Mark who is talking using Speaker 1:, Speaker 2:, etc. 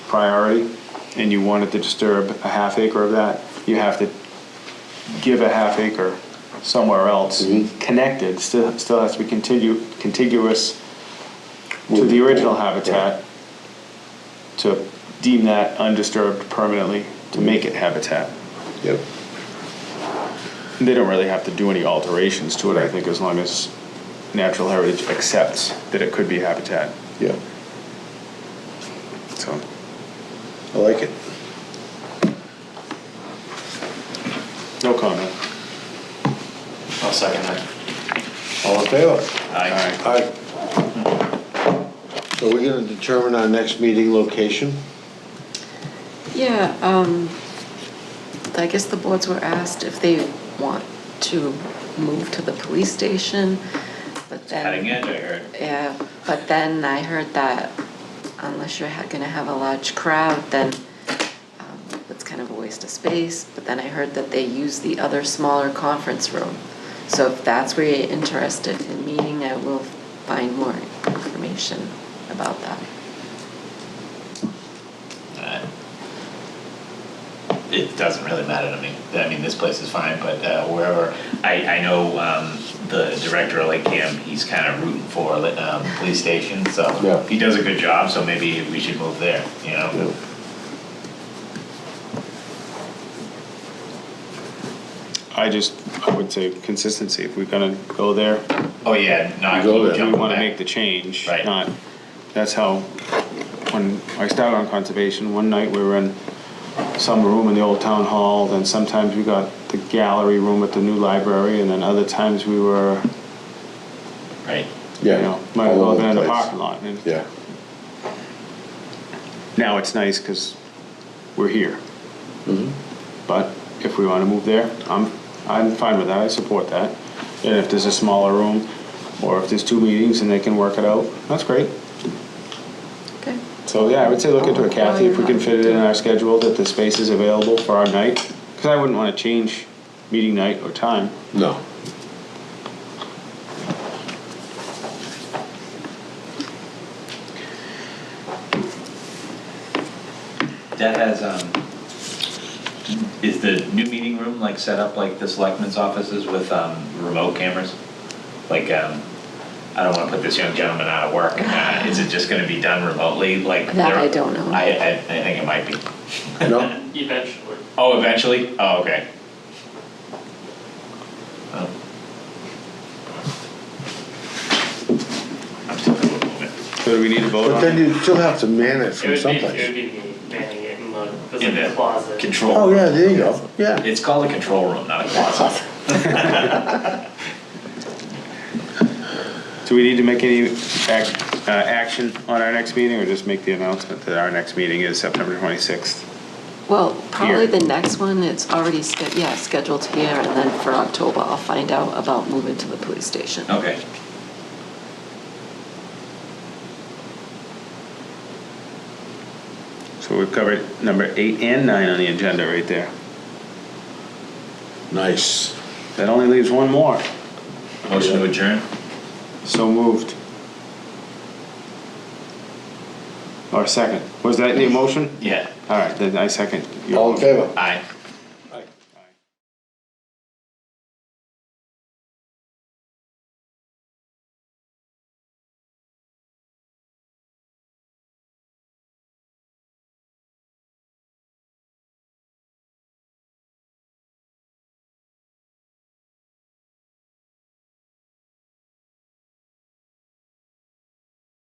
Speaker 1: priority and you wanted to disturb a half acre of that, you have to give a half acre somewhere else, connected, still, still has to be continu contiguous to the original habitat to deem that undisturbed permanently, to make it habitat.
Speaker 2: Yep.
Speaker 1: They don't really have to do any alterations to it, I think, as long as natural heritage accepts that it could be habitat,
Speaker 2: Yeah.
Speaker 1: so.
Speaker 2: I like it.
Speaker 1: No comment.
Speaker 3: I'll second that.
Speaker 2: All in favor?
Speaker 3: Aye.
Speaker 2: Aye. So we're gonna determine our next meeting location?
Speaker 4: Yeah, um, I guess the boards were asked if they want to move to the police station, but then.
Speaker 3: Cutting edge, I heard.
Speaker 4: Yeah, but then I heard that unless you're ha- gonna have a large crowd, then um, it's kind of a waste of space. But then I heard that they use the other smaller conference room. So if that's where you're interested in meeting, I will find more information about that.
Speaker 3: Uh, It doesn't really matter to me. I mean, this place is fine, but uh, wherever, I, I know um, the director of Lake Cam, he's kind of rooting for um, police station, so.
Speaker 2: Yeah.
Speaker 3: He does a good job, so maybe we should move there, you know?
Speaker 1: I just, I would say consistency, if we're gonna go there,
Speaker 3: Oh, yeah, not.
Speaker 2: Go there.
Speaker 1: do we
Speaker 3: jumping
Speaker 1: wanna
Speaker 3: back.
Speaker 1: make the change?
Speaker 3: Right.
Speaker 1: Not, that's how, when I started on conservation, one night we were in some room in the old town hall, then sometimes we got the gallery room at the new library, and then other times we were,
Speaker 3: Right.
Speaker 1: you know, might have
Speaker 2: all
Speaker 1: well
Speaker 2: over
Speaker 1: been in
Speaker 2: the
Speaker 1: the
Speaker 2: place.
Speaker 1: parking lot. and
Speaker 2: Yeah,
Speaker 1: Now it's nice, cause we're here. But if we wanna move there, I'm, I'm fine with that, I support that. And if there's a smaller room, or if there's two meetings and they can work it out, that's great.
Speaker 4: Okay.
Speaker 1: So, yeah, I would say look into it, Kathy, if we can fit it in our schedule, that the space is available for our night. Cause I wouldn't wanna change meeting night or time.
Speaker 2: no.
Speaker 3: That has, um, is the new meeting room like set up like the selectmen's offices with, um, remote cameras? Like, um, I don't wanna put this young gentleman out of work, uh, is it just gonna be done remotely, like?
Speaker 4: That
Speaker 3: there-
Speaker 4: I don't know.
Speaker 3: I, I, I think it might be.
Speaker 2: No?
Speaker 5: Eventually.
Speaker 3: Oh, eventually? Oh, okay. Oh. I'm still a little bit.
Speaker 1: So do we need to vote
Speaker 2: But
Speaker 1: on
Speaker 2: then
Speaker 1: it?
Speaker 2: you still have to man it
Speaker 5: It
Speaker 2: from
Speaker 5: would be, it would
Speaker 2: someplace.
Speaker 5: be me manning it in the, it was
Speaker 3: In
Speaker 5: in
Speaker 3: the
Speaker 5: the closet.
Speaker 3: Control.
Speaker 2: Oh, yeah,
Speaker 3: room.
Speaker 2: there you go, yeah.
Speaker 3: It's called a control room, not a closet.
Speaker 1: Do we need to make any ac- uh, action on our next meeting, or just make the announcement that our next meeting is September twenty-sixth?
Speaker 4: Well, probably
Speaker 1: Here.
Speaker 4: the next one, it's already, sched- yeah, scheduled here, and then for October, I'll find out about moving to the police station.
Speaker 3: Okay.
Speaker 1: So we've covered number eight and nine on the agenda right there.
Speaker 2: Nice.
Speaker 1: That only leaves one more.
Speaker 3: Motion to adjourn?
Speaker 1: So moved. Or second. Was that the motion?
Speaker 3: Yeah.
Speaker 1: All right, then I second. your
Speaker 2: All in
Speaker 1: motion.
Speaker 2: favor?
Speaker 3: Aye.